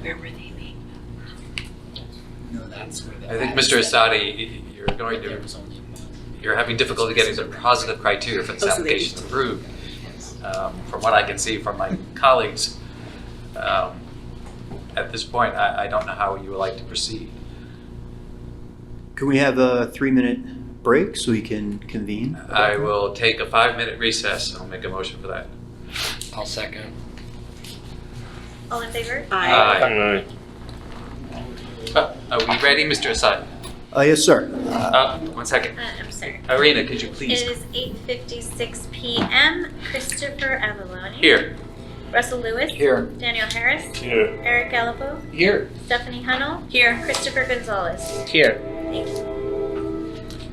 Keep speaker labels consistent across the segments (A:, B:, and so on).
A: Where were they made?
B: No, that's where the.
C: I think, Mr. Asadi, you're going
B: There
C: to,
B: was only about-
C: you're having difficulty getting the positive criteria for this
A: Oh, so they
C: application approved. Um, From what I can see from my colleagues, um, at this point, I, I don't know how you would like to proceed.
D: Can we have a three-minute break so we can convene?
C: I will take a five-minute recess, and I'll make a motion for that.
B: I'll second.
E: All in favor?
C: Aye.
F: Aye.
C: Uh, Are we ready, Mr. Asadi?
D: Uh, yes, sir.
C: Uh, One second.
E: Uh, I'm sorry.
C: Irina, could you
E: It
C: please?
E: is 8:56 p.m. Christopher Avalone.
C: Here.
E: Russell Lewis.
C: Here.
E: Daniel Harris.
F: Yeah.
E: Eric Gallipo.
B: Here.
E: Stephanie Hunnell. Here. Christopher Gonzalez.
B: Here.
E: Thank you.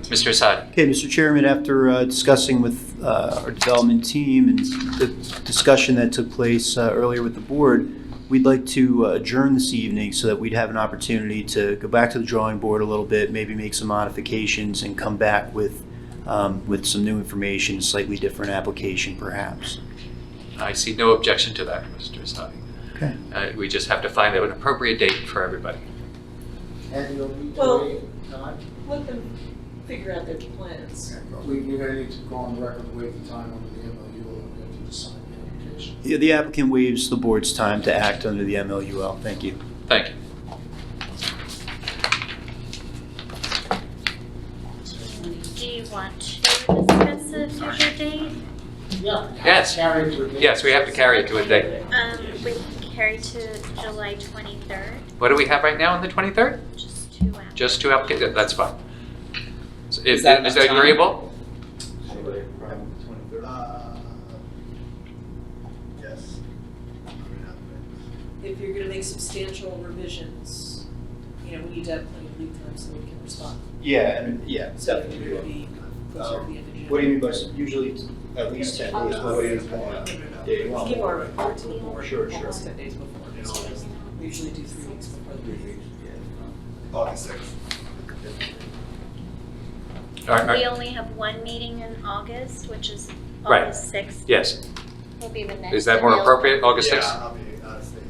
C: Mr. Asadi?
D: Okay, Mr. Chairman, after uh, discussing with uh, our development team and the discussion that took place uh, earlier with the board, we'd like to adjourn this evening so that we'd have an opportunity to go back to the drawing board a little bit, maybe make some modifications and come back with, um, with some new information, slightly different application perhaps.
C: I see no objection to that, Mr. Asadi.
D: Okay.
C: Uh, We just have to find out an appropriate date for everybody.
G: And you'll need
H: Well-
G: to wait, time,
H: Let them figure out their plans.
G: we, we're gonna need to go on record, wait the time under the MOU, and we have to decide the application.
D: Yeah, The applicant waives the board's time to act under the MLUL. Thank you.
C: Thank you.
E: Do you want to discuss a future date?
G: Yeah.
C: Yes.
G: Carry it to a date.
C: Yes, we have to carry it to a date.
E: Um, we can carry to July 23rd,
C: What do we have right now on the 23rd?
E: just two hours.
C: Just two applications, that's fine. So Is,
B: Is that
C: is
B: enough
C: that
B: time?
C: agreeable?
G: Uh, Yes.
H: If you're gonna make substantial revisions, you know, we need to have plenty of lead time so we can respond.
D: Yeah, and- yeah.
H: So it would be closer to the end of June.
D: Uh, What do you mean by, s- usually it's at least ten days? What do you mean? Yeah,
H: Let's
D: well,
H: Give our report to the board
D: Sure, sure.
H: almost ten days before, so we usually do three weeks before the meeting.
G: August sixth.
C: All right, all
E: We
C: right.
E: only have one meeting in August, which is
C: Right.
E: August 6th,
C: Yes,
E: will be the next.
C: is that more
E: available.
C: appropriate, August 6th?
G: I'll be out of state.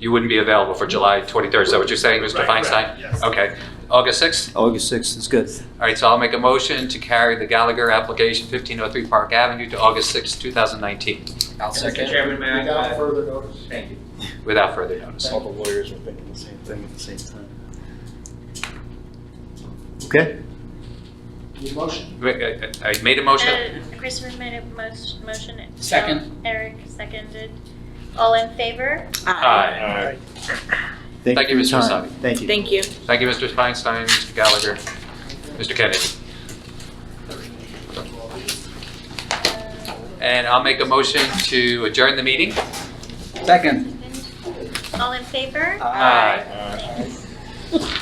C: You wouldn't be available for July 23rd, is that what you're saying, Mr.
G: Right, right,
C: Feinstein?
G: yes.
C: Okay, August 6th?
D: August sixth is good.
C: All right, so I'll make a motion to carry the Gallagher application 1503 Park Avenue to August 6th, 2019,
B: I'll
I: Mr.
B: second.
I: Chairman, may I?
G: Without further notice.
I: Thank you.
C: without further notice.
D: All the lawyers are thinking the same thing at the same time. Okay,
G: Your motion.
C: Wait, I I- I made a motion.
E: Uh, Christopher made a mos- motion.
B: Second.
E: Eric seconded. All in favor?
H: Uh,
C: Aye.
F: Aye.
D: thank
C: Thank
D: you for
C: you,
D: your
C: Mr.
D: time.
C: Vasari.
D: Thank you.
A: Thank you.
C: Thank you, Mr. Feinstein, Mr. Gallagher, Mr. Kennedy.
E: Uh,
C: And I'll make a motion to adjourn the meeting.
B: Second.
E: All in favor?
C: Aye.
F: Aye.